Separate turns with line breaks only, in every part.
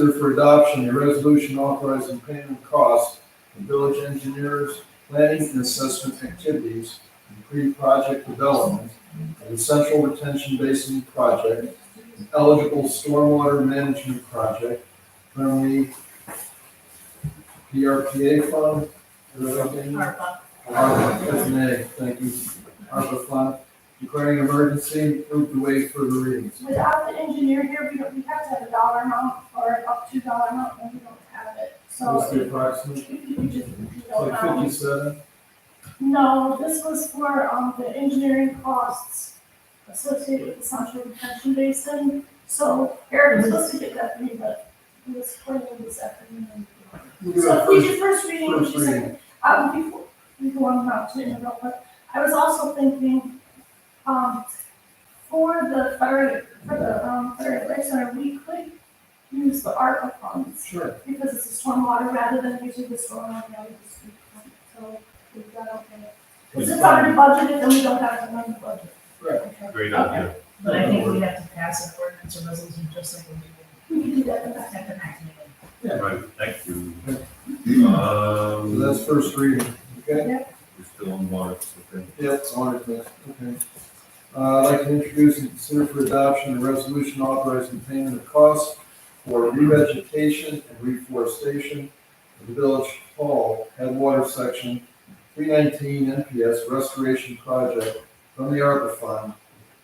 Consider for adoption a resolution authorizing payment of costs for village engineers, planning and assessment activities, and pre-project development of the central retention basin project, and eligible stormwater management project from the PRPA fund. Is that okay?
ARPA.
ARPA, that's an A, thank you. ARPA fund, declaring emergency, move to waive further readings.
Without the engineer here, we don't, we have to have a dollar amount or up to dollar amount, and we don't have it,
What's the
so.
approximate?
we- we just- we
It's
don't
Like
know.
fifty-seven?
No, this was for, um, the engineering costs associated with the central detention basin, so Eric was supposed to get that for me, but he was planning this afternoon. So if we do first reading, which is,
First reading.
um, before, before I'm about to interrupt, but I was also thinking, um, for the fire, for the, um, fire rec center, we could use the ARPA funds,
Sure.
because it's a stormwater rather than using the stormwater, now we just, do it. so we've got, okay. Because it's already budgeted, and we don't have to run the budget.
Right.
Okay.
Great idea.
But I think we have to pass an ordinance or resolution just like we did
We can do that in the next.
at the next meeting.
Right, thank you.
So
Um,
that's first reading, okay?
we're still on water, okay.
Yeah, it's on it, but, okay. Uh, I'd like to introduce and consider for adoption a resolution authorizing payment of costs for revegetation and reforestation of the Village Hall Headwater Section three nineteen NPS Restoration Project from the ARPA Fund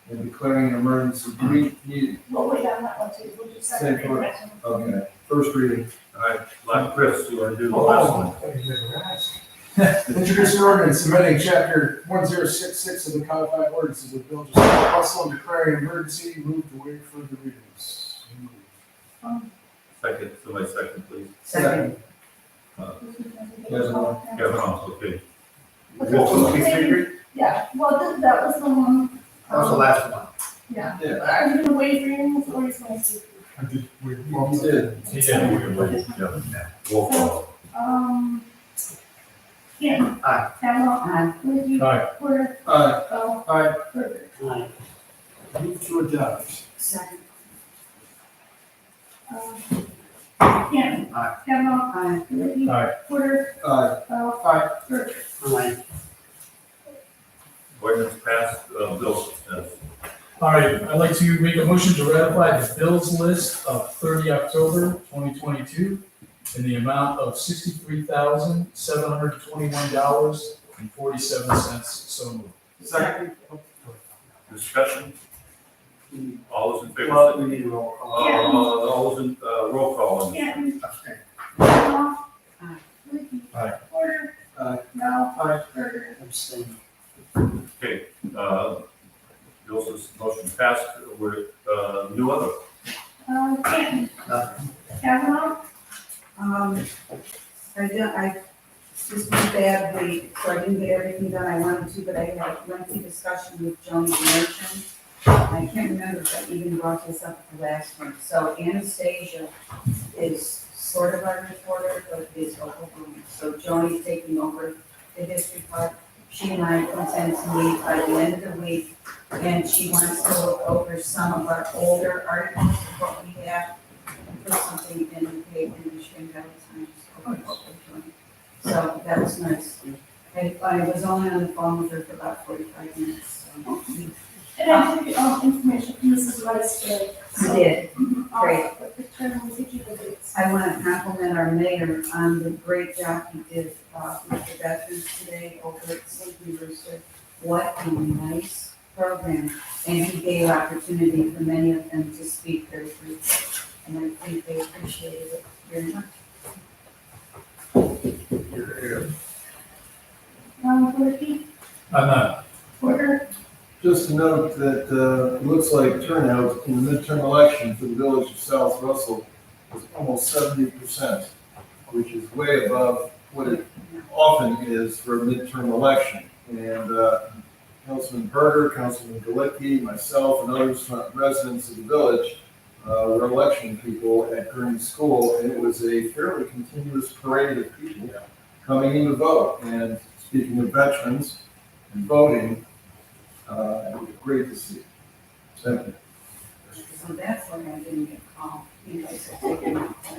and declaring an emergency re- needed.
We'll wait on that one too, we'll just second
Same for-
it.
Okay, first reading.
All right, like Chris, you want to do
Oh,
the last one?
Introduce an ordinance amending chapter one zero six six of the codified ordinances of the village of South Russell and declaring emergency, move to waive further readings.
Um,
Second, somebody second, please.
Second,
we can-
There's one.
Kevin, also, okay.
Okay.
Roll call, please, Adrian.
Yeah, well, that, that was the one.
That was the
um,
last one.
Yeah,
Yeah.
are you gonna waive readings or is my secret?
You did.
Yeah, we can wait. Yeah. uh, Roll call.
Um, Kim.
Aye.
Pamela. Aye. Lindsay.
Aye.
Porter.
Uh,
Bo.
Aye.
Burger.
move to adopt.
second,
Um, Kim.
Aye.
Pamela. Aye. Lindsay.
Aye.
Porter.
Uh,
Bo.
Aye.
Burger.
Ordinance passed, uh, bill suspended.
All right, I'd like to make a motion to ratify the bills list of thirty October twenty twenty-two in the amount of sixty-three thousand, seven hundred twenty-one dollars and forty-seven cents, so moved.
Second.
Discussion? All those in favor?
Well, we need a roll
Uh,
call.
all those in, uh, roll call.
Kim.
Abstain.
Pamela.
Aye.
Lindsay.
Aye.
Porter.
Aye.
Bo.
Aye.
Burger.
Okay, uh, bill sus, motion passed, we're, uh, new other.
Um, Kim.
Nothing.
Pamela.
Um, I did, I, this was bad week, so I didn't get everything done I wanted to, but I had a lengthy discussion with Joni Merchant. I can't remember if I even brought this up at the last one, so Anastasia is sort of our reporter, but is overwhelmed. So Joni's taking over the history part. She and I intend to meet by the end of the week, and she wants to look over some of our older articles, what we have, put something in the paper and she can have it signed. so it's open to them. So that was nice. I, I was only on the phone with her for about forty-five minutes, so.
And I took your own information from Mrs. Rice today. so-
I did. Great.
Uh, But the term was each of the dates.
I want to compliment our mayor on the great job he did, uh, with the veterans today over at St. Rooster. What a nice program, and he gave opportunity for many of them to speak their truth. And I think they appreciated it very much.
Um, Wilkie,
I'm not
Porter,
Just to note that, uh, it looks like turnout in the midterm election for the village of South Russell was almost seventy percent, which is way above what it often is for a midterm election. And, uh, Councilman Berger, Councilman Galicki, myself, and others, uh, residents of the village, uh, were election people at Green School, and it was a fairly continuous parade of people coming in to vote. And speaking of veterans and voting, uh, great to see. Thank you.
So that's why I didn't get called, you guys are taking my call.